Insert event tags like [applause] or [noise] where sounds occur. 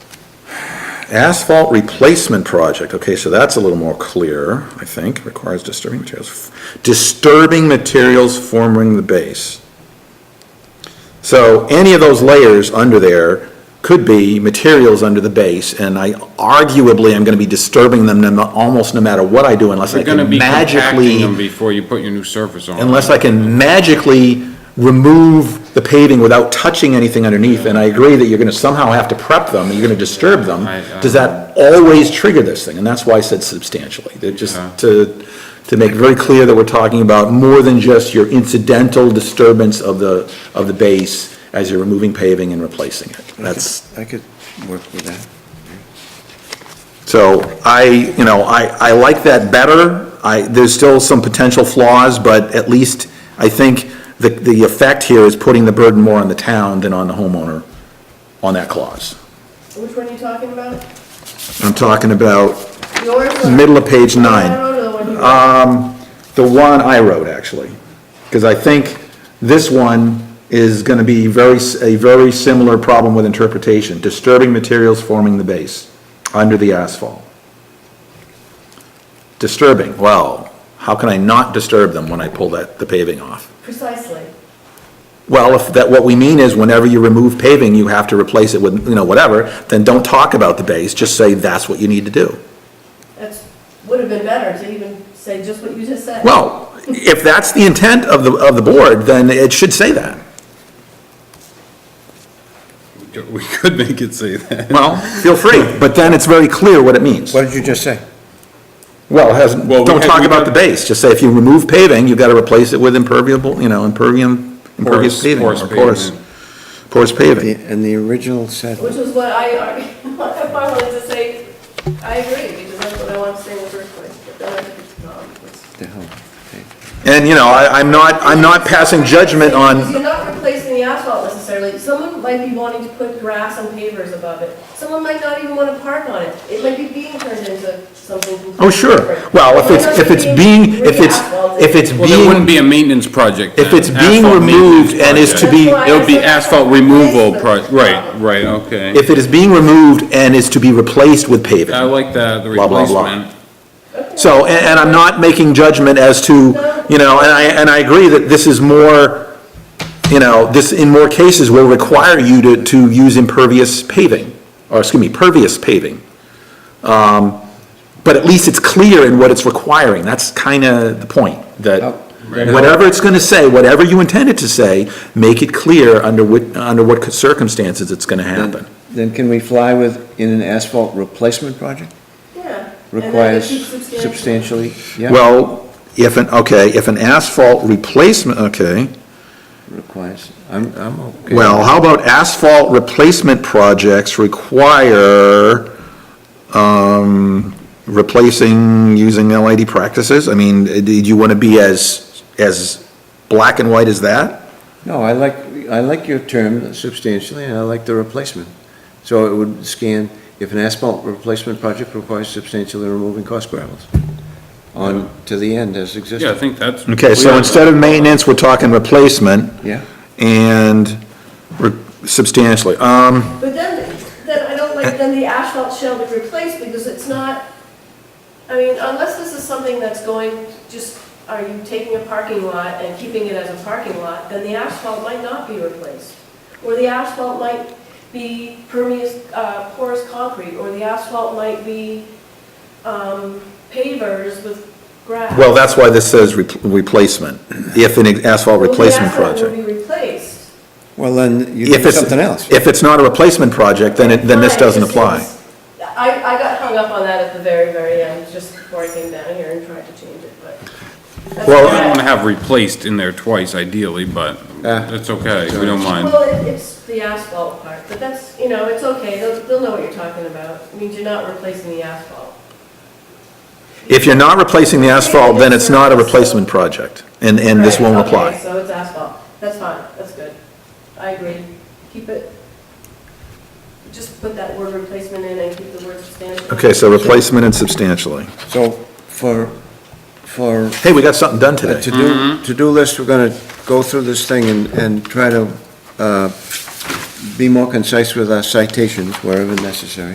Asphalt replacement project, okay, so that's a little more clear, I think, requires disturbing materials. Disturbing materials forming the base. So any of those layers under there could be materials under the base, and I arguably am gonna be disturbing them no- almost no matter what I do unless I You're can gonna be compacting magically them before you put your new surface on. unless I can magically remove the paving without touching anything underneath, and I agree that you're gonna somehow have to prep them, you're gonna disturb them, I- I- does that always trigger this thing? And that's why I said substantially, that just Yeah. to, to make very clear that we're talking about more than just your incidental disturbance of the, of the base as you're removing paving and replacing it. That's, I could work with that. So I, you know, I, I like that better. I, there's still some potential flaws, but at least I think the, the effect here is putting the burden more on the town than on the homeowner on that clause. Which one are you talking about? I'm talking about Yours or? middle of page I nine, Uh, don't know the one you the one I wrote, actually. Because I think this one is gonna be very, s- a very similar problem with interpretation, disturbing materials forming the base under the asphalt. Disturbing, well, how can I not disturb them when I pull that, the paving off? Precisely. Well, if that, what we mean is whenever you remove paving, you have to replace it with, you know, whatever, then don't talk about the base, just say that's what you need to do. That's, would have been better to even say just what you just said. Well, if that's the intent of the, of the board, then it should say that. We could make it say that. Well, feel free, but then it's very clear what it means. What did you just say? Well, it hasn't, Well, we don't had- talk we about had- the base, just say if you remove paving, you've got to replace it with impermeable, you know, impervium, impervious Porous- paving, or porous porous, pavement. porous The- paving. And the original said, Which was what I, [laughs] ar- if I wanted to say, I agree, because that's what I wanted to say in the first place, but then I think it's not. It's- the hell, And, you know, I, I'm not, I'm not passing judgment Because on, You're not replacing the asphalt necessarily. Someone might be wanting to put grass and pavers above it. Someone might not even want to park on it. It might be being turned into something completely oh, sure. different. Well, if Why it's, not if it's being, if it's, re-asphalted? if it's Well, there wouldn't being, be a maintenance project. If then. it's being Asphalt removed maintenance and is to project. be- That's why I It would be said that's asphalt not a removal pro, replacement right, problem. right, okay. if it is being removed and is to be replaced with paving. I like that, the Blah, blah, blah. replacement. So, and, and I'm not making judgment as to, you know, and I, and I agree that this is more, you know, this in more cases will require you to, to use impervious paving, or excuse me, pervious paving. Um, but at least it's clear in what it's requiring, that's kinda the point, that whatever it's gonna say, whatever you intend it to say, make it clear under what, under what circumstances it's gonna happen. Then- Then can we fly with, in an asphalt replacement project? Yeah. And then it Requires keeps substantial. substantially, yeah? Well, if an, okay, if an asphalt replacement, okay. Requires, I'm, I'm okay. Well, how about asphalt replacement projects require, um, replacing using LID practices? I mean, eh, do you want to be as, as black and white as that? No, I like, I like your term substantially, and I like the replacement. So it would scan, if an asphalt replacement project requires substantially removing cost gravels on to the end as Yeah, I existing. think that's. Okay, so Yeah. instead of maintenance, we're talking replacement Yeah, and re- substantially. Um, But then, then I don't like, then the asphalt shall be replaced because it's not, I mean, unless this is something that's going, just, are you taking a parking lot and keeping it as a parking lot, then the asphalt might not be replaced. Or the asphalt might be permeous, uh, porous concrete, or the asphalt might be, um, pavers with grass. well, that's why this says re- replacement, if an asphalt Well, the replacement asphalt project. will be replaced. well, then you If do it's something else. If it's not a replacement project, then it, then this Fine, doesn't it just apply. seems- I, I got hung up on that at the very, very end, just before I came down here and tried to change it, but. that's Well, I don't okay. wanna have replaced in there twice ideally, but Ah. that's Uh, okay, we don't mind. Well, it- it's the asphalt part, but that's, you know, it's okay, they'll, they'll know what you're talking about. I mean, you're not replacing the asphalt. If you're not replacing the asphalt, then it's not a replacement project, and, and this Right, won't okay, apply. So it's asphalt, that's fine, that's good. I agree, keep it, just put that word replacement in and keep the word substantial. Okay, so replacement and substantially. So for, for Hey, we got something done a today. Uh, to-do, to-do list, we're gonna go through this thing and, and try to, uh, be more concise with our citations wherever necessary.